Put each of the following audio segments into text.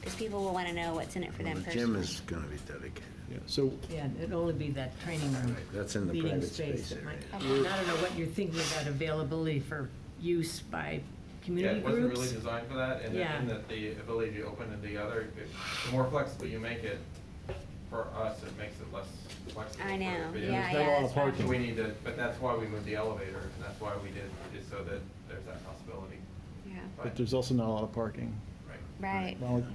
because people will want to know what's in it for Well, them The gym personally. is gonna be dedicated. Yeah, so, Yeah, it'd only be that training room. Right, that's in the meeting private space that might- area. I don't know what you're thinking about availability for use by Yeah, community it wasn't really groups. designed for that, and Yeah. and that the ability to open it together, it- the more flexible you make it, for us, it makes it less flexible. I for know, video. yeah, not a lot yeah, of that's right. parking. So we need to, but that's why we moved the elevator, and that's why we did, is so that there's that possibility. Yeah, but there's also not a lot of parking. Right. right, Well, yeah. it-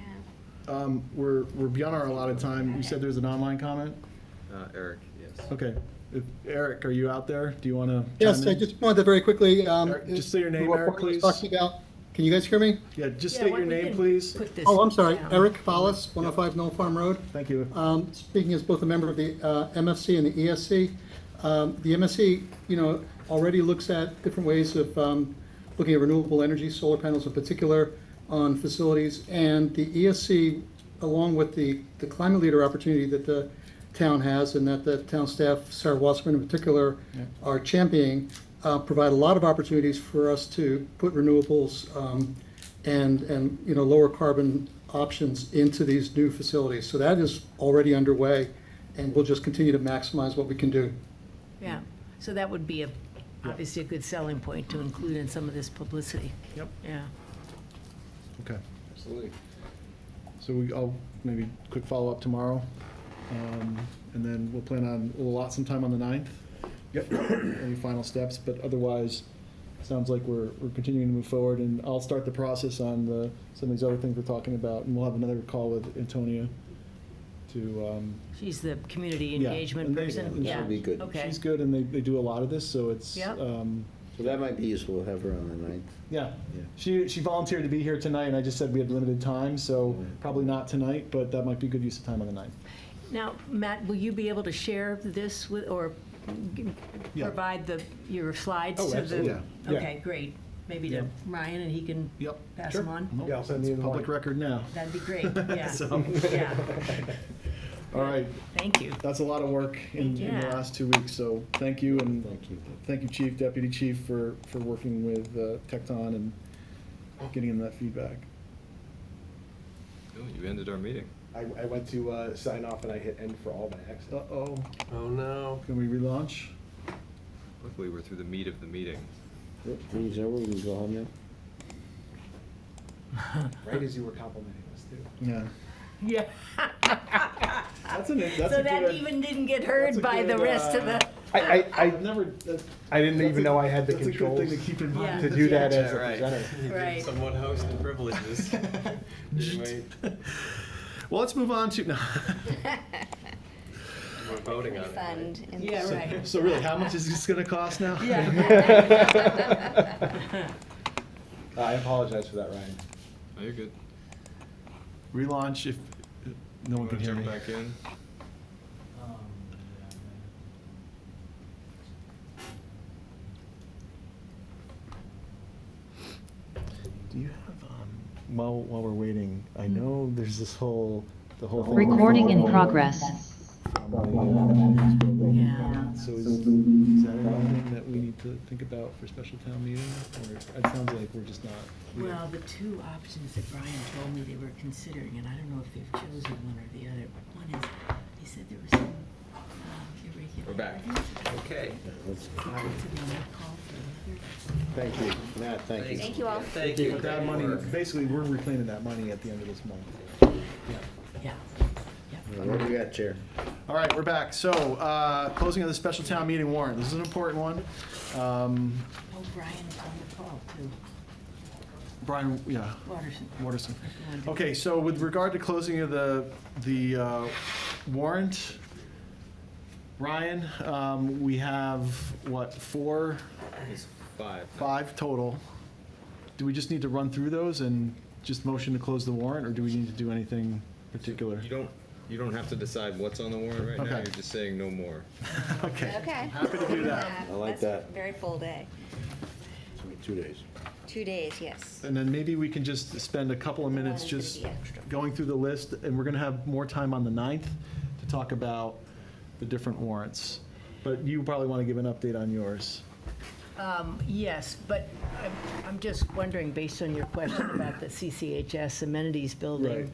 Um, We're, we're beyond our allotted time. You said there's an online comment? Uh, Eric, yes. Okay. If- Eric, are you out there? Do you want to? Yes, I just wanted to very quickly. um, Eric, just say your name, what Eric, Paul was please. Talking about, can you guys hear me? Yeah, just Yeah, state why your don't we name, can please. put this Oh, I'm sorry, down. Eric Fallis, 105 Knoll Farm Road. Thank you. Um, Speaking as both a member of the uh, MFC and the ESC, um, the MFC, you know, already looks at different ways of um, looking at renewable energy, solar panels in particular, on facilities. And the ESC, along with the, the climate leader opportunity that the town has and that the town staff, Sarah Wasserman in particular, are championing, uh, provide a lot of opportunities for us to put renewables um, and, and, you know, lower carbon options into these new facilities. So that is already underway, and we'll just continue to maximize what we can do. Yeah, so that would be a, obviously a good selling point to include in some of this publicity. Yep. Yeah. Okay. Absolutely. So we, I'll maybe quick follow-up tomorrow. um, And then we'll plan on, we'll allot some time on the 9th. Yep. Any final steps, but otherwise, sounds like we're, we're continuing to move forward. And I'll start the process on the, some of these other things we're talking about. And we'll have another call with Antonia to, um, She's the community Yeah, engagement and they- person. and Yeah. she'll be good. Okay. she's good and they, they do a lot of this, so it's, Yep. um, So that might be useful, we'll have her on the ninth. yeah. Yeah. She, she volunteered to be here tonight and I just said we had limited time, so probably not tonight, but that might be good use of time on the 9th. Now, Matt, will you be able to share this with, or g- Yeah. provide the, your slides Oh, to absolutely. the? Yeah. Yeah. Okay, great. Maybe Yeah. to Ryan, and he can Yep. pass Sure. them on? Nope, Yeah, I'll send it's you the link. Public record now. That'd be great, yeah. So- Yeah, All right, thank you. that's a lot of work in, in the Yeah. last two weeks, so thank you and Thank you. thank you, Chief, Deputy Chief, for, for working with uh, Tecton and getting in that feedback. Ooh, You ended our meeting. I, I went to uh, sign off and I hit end for all by accident. Uh-oh, Oh no. can we relaunch? Luckily, we're through the meat of the meeting. Please, over, we can go home now? Right as you were complimenting us too. Yeah. Yeah. That's an, that's a good. So that even didn't get that's a heard by the good, rest of uh, the, I, I, I've I, never, that's. I didn't that's even a- know I had the that's a good controls thing to keep in mind. to do that as a Right. presenter. right. Someone hosting privileges. Well, let's move on to, no. We're voting on it. right? Fund. and- Yeah, right. So really, how much is this gonna cost now? Yeah. I apologize for that, Ryan. Oh, you're good. Relaunch if, no one Want can to hear me. jump back in? Do you have, um, while, while we're waiting, I know there's this whole, the whole thing. Hmm. Recording in progress. Yeah. So is, is that anything that we need to think about for special town meeting? Or it sounds like we're just not. Well, the two options that Brian told me they were considering, and I don't know if they've chosen one or the other, but one is, he said there was some um, irregularities. We're back. Okay. So they might call for another Thank you, Matt, thank you. Thank you all. Thank you. But that money, basically, we're reclaiming that money at the end of this month. Yeah. What do we got, Chair? All right, we're back. So, uh, closing of the special town meeting warrant. This is an important one. Um, Oh, Brian's on the call too. Brian, yeah, Waterson. Waterson. Go on, Dick. Okay, so with regard to closing of the, the uh, warrant, Ryan, um, we have, what, four, It's five. five total? Do we just need to run through those and just motion to close the warrant, or do we need to do anything particular? You don't, you don't have to decide what's on the warrant right now. Okay. You're just saying no more. Okay. Okay. Happy to do that. I like That's that. Very full day. Two days. Two days, yes. And then maybe we can just spend a couple of minutes It's gonna just be extra. going through the list, and we're gonna have more time on the 9th to talk about the different warrants. But you probably want to give an update on yours. Um, Yes, but I'm- I'm just wondering, based on your question about the CCHS amenities building, Right.